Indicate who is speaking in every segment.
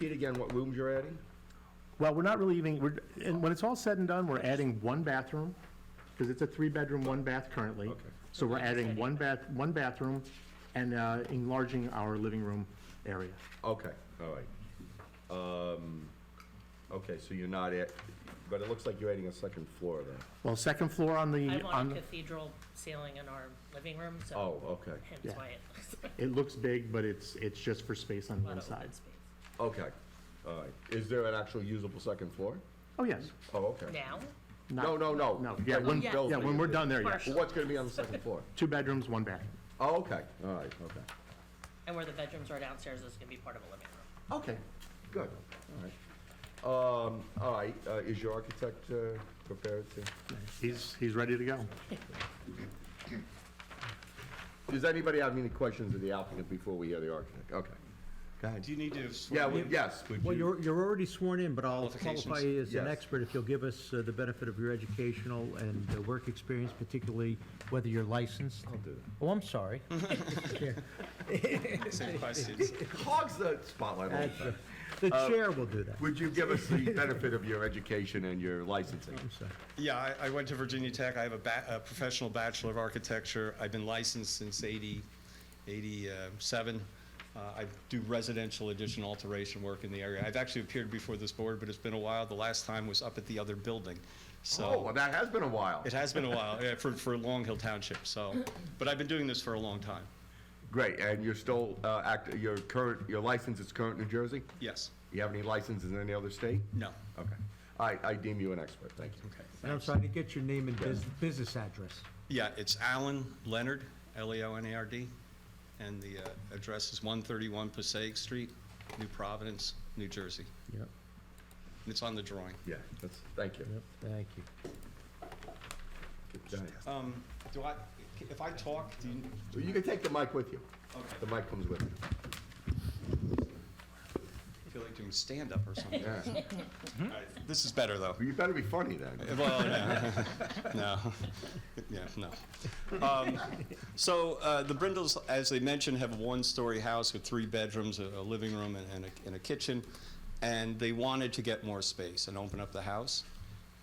Speaker 1: Repeat again what rooms you're adding?
Speaker 2: Well, we're not really even, we're, and when it's all said and done, we're adding one bathroom, because it's a three-bedroom, one bath currently.
Speaker 1: Okay.
Speaker 2: So we're adding one bath, one bathroom and uh, enlarging our living room area.
Speaker 1: Okay, all right. Um, Okay, so you're not at, but it looks like you're adding a second floor then.
Speaker 2: Well, second floor on
Speaker 3: I
Speaker 2: the,
Speaker 3: want a
Speaker 2: on,
Speaker 3: cathedral ceiling in our living room, so
Speaker 1: Oh, okay,
Speaker 2: Yeah.
Speaker 3: hence why it looks like
Speaker 2: it looks big, but it's, it's just for space on
Speaker 3: a
Speaker 2: the
Speaker 3: lot of
Speaker 2: inside.
Speaker 3: open space.
Speaker 1: okay, all right. Is there an actual usable second floor?
Speaker 2: Oh, yes.
Speaker 1: Oh, okay.
Speaker 3: Now,
Speaker 2: Not-
Speaker 1: No, no, no.
Speaker 2: No, yeah,
Speaker 3: Oh,
Speaker 1: Like
Speaker 2: when,
Speaker 1: you
Speaker 2: yeah,
Speaker 1: built
Speaker 2: when we're
Speaker 1: it.
Speaker 2: done there, yes.
Speaker 1: Well, What's gonna be on the second floor?
Speaker 2: Two bedrooms, one bath.
Speaker 1: Oh, okay, all right, okay.
Speaker 3: and where the bedrooms are downstairs is gonna be part of a living room.
Speaker 2: Okay.
Speaker 1: Good, all right. Um, All right, uh, is your architect uh, prepared to?
Speaker 2: He's, he's ready to go.
Speaker 1: Does anybody have any questions of the applicant before we hear the architect? Okay. Go ahead.
Speaker 4: Do you need to swear
Speaker 1: Yeah,
Speaker 4: me
Speaker 1: we-
Speaker 4: in?
Speaker 1: yes.
Speaker 4: Would
Speaker 5: Well,
Speaker 4: you-
Speaker 5: you're, you're already sworn in, but I'll qualify you as an
Speaker 1: Yes.
Speaker 5: expert if you'll give us uh, the benefit of your educational and uh, work experience, particularly whether you're licensed. I'll do that. Oh, I'm sorry.
Speaker 4: Same questions.
Speaker 1: Hogs the spotlight a little bit.
Speaker 5: The chair will do that.
Speaker 1: Would you give us the benefit of your education and your licensing?
Speaker 5: I'm sorry.
Speaker 4: Yeah, I, I went to Virginia Tech. I have a, ba- a professional Bachelor of Architecture. I've been licensed since 80, 87. Uh, I do residential addition alteration work in the area. I've actually appeared before this board, but it's been a while. The last time was up at the other building.
Speaker 1: Oh,
Speaker 4: So
Speaker 1: well, that has been a while.
Speaker 4: it has been a while, yeah, for, for Long Hill Township, so. But I've been doing this for a long time,
Speaker 1: Great, and you're still, uh, act, your current, your license is current New Jersey?
Speaker 4: yes.
Speaker 1: You have any licenses in any other state?
Speaker 4: No.
Speaker 1: Okay. I, I deem you an expert, thank you.
Speaker 4: Okay.
Speaker 5: And I'm sorry to get your name and bus- business address.
Speaker 4: Yeah, it's Alan Leonard, E L-E-O-N-A-R-D, and the uh, address is 131 Passaic Street, New Providence, New Jersey.
Speaker 5: Yep,
Speaker 4: It's on the drawing.
Speaker 1: Yeah, that's, thank you.
Speaker 5: yep, thank you.
Speaker 1: Go ahead.
Speaker 4: Um, Do I, if I talk, do you,
Speaker 1: So You can take the mic with you.
Speaker 4: Okay.
Speaker 1: The mic comes with you.
Speaker 4: I feel like doing stand-up or something.
Speaker 1: Yeah.
Speaker 4: All right, This is better, though.
Speaker 1: You better be funny then.
Speaker 4: Well, no. no, yeah, no. Um, so uh, the Brindles, as they mentioned, have a one-story house with three bedrooms, a, a living room, and, and, a, and a kitchen, and they wanted to get more space and open up the house.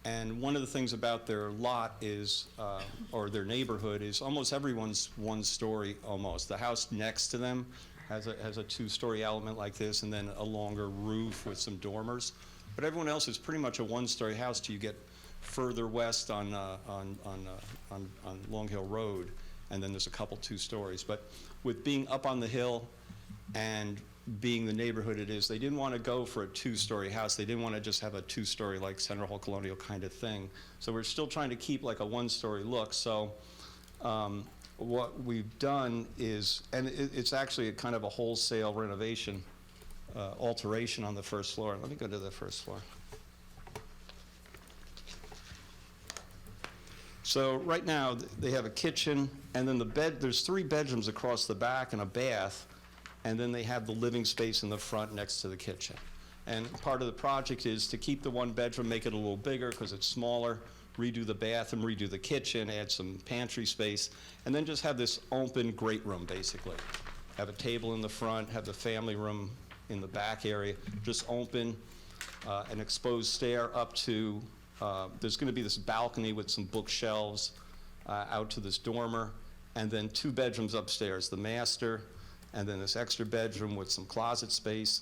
Speaker 4: And one of the things about their lot is, uh, or their neighborhood, is almost everyone's one story almost. The house next to them has a, has a two story element like this, and then a longer roof with some dormers. But everyone else is pretty much a one story house till you get further west on, uh, on, on, uh, on, on Long Hill Road, and then there's a couple two stories. But with being up on the hill, and being the neighborhood it is, they didn't want to go for a two-story house. They didn't want to just have a two-story like Center Hall Colonial kind of thing. So we're still trying to keep like a one-story look. So um, what we've done is, and it, it's actually a kind of a wholesale renovation, uh, alteration on the first floor. Let me go to the first floor. So right now, th- they have a kitchen, and then the bed, there's three bedrooms across the back and a bath, and then they have the living space in the front next to the kitchen. And part of the project is to keep the one bedroom, make it a little bigger because it's smaller, redo the bathroom, redo the kitchen, add some pantry space, and then just have this open great room, basically. Have a table in the front, have the family room in the back area, just open, uh, an exposed stair up to, uh, there's going to be this balcony with some bookshelves uh, out to this dormer, and then two bedrooms upstairs, the master, and then this extra bedroom with some closet space,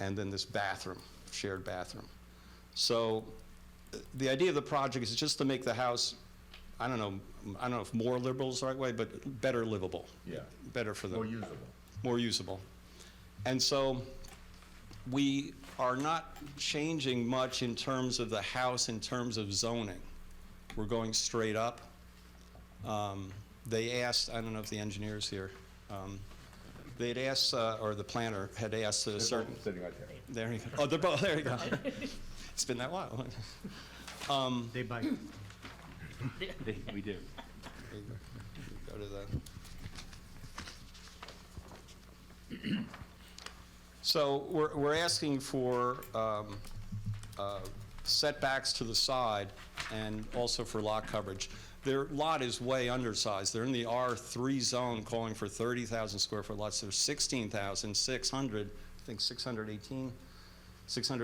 Speaker 4: and then this bathroom, shared bathroom. So uh, the idea of the project is just to make the house, I don't know, I don't know if more liberal is the right way, but better livable.
Speaker 1: Yeah.
Speaker 4: Better for them
Speaker 1: More usable.
Speaker 4: more usable. And so we are not changing much in terms of the house, in terms of zoning. We're going straight up. Um, They asked, I don't know if the engineer's here, um, they'd asked, uh, or the planner had asked a certain.
Speaker 1: Sitting right there.
Speaker 4: There you go. Oh, they're both, there you go. It's been that while.
Speaker 5: They bite.
Speaker 6: We do.
Speaker 4: Go to the. So we're, we're asking for um, uh, setbacks to the side and also for lot coverage. Their lot is way undersized. They're in the R3 zone calling for 30,000 square foot lots. There's 16,600, I think 618 600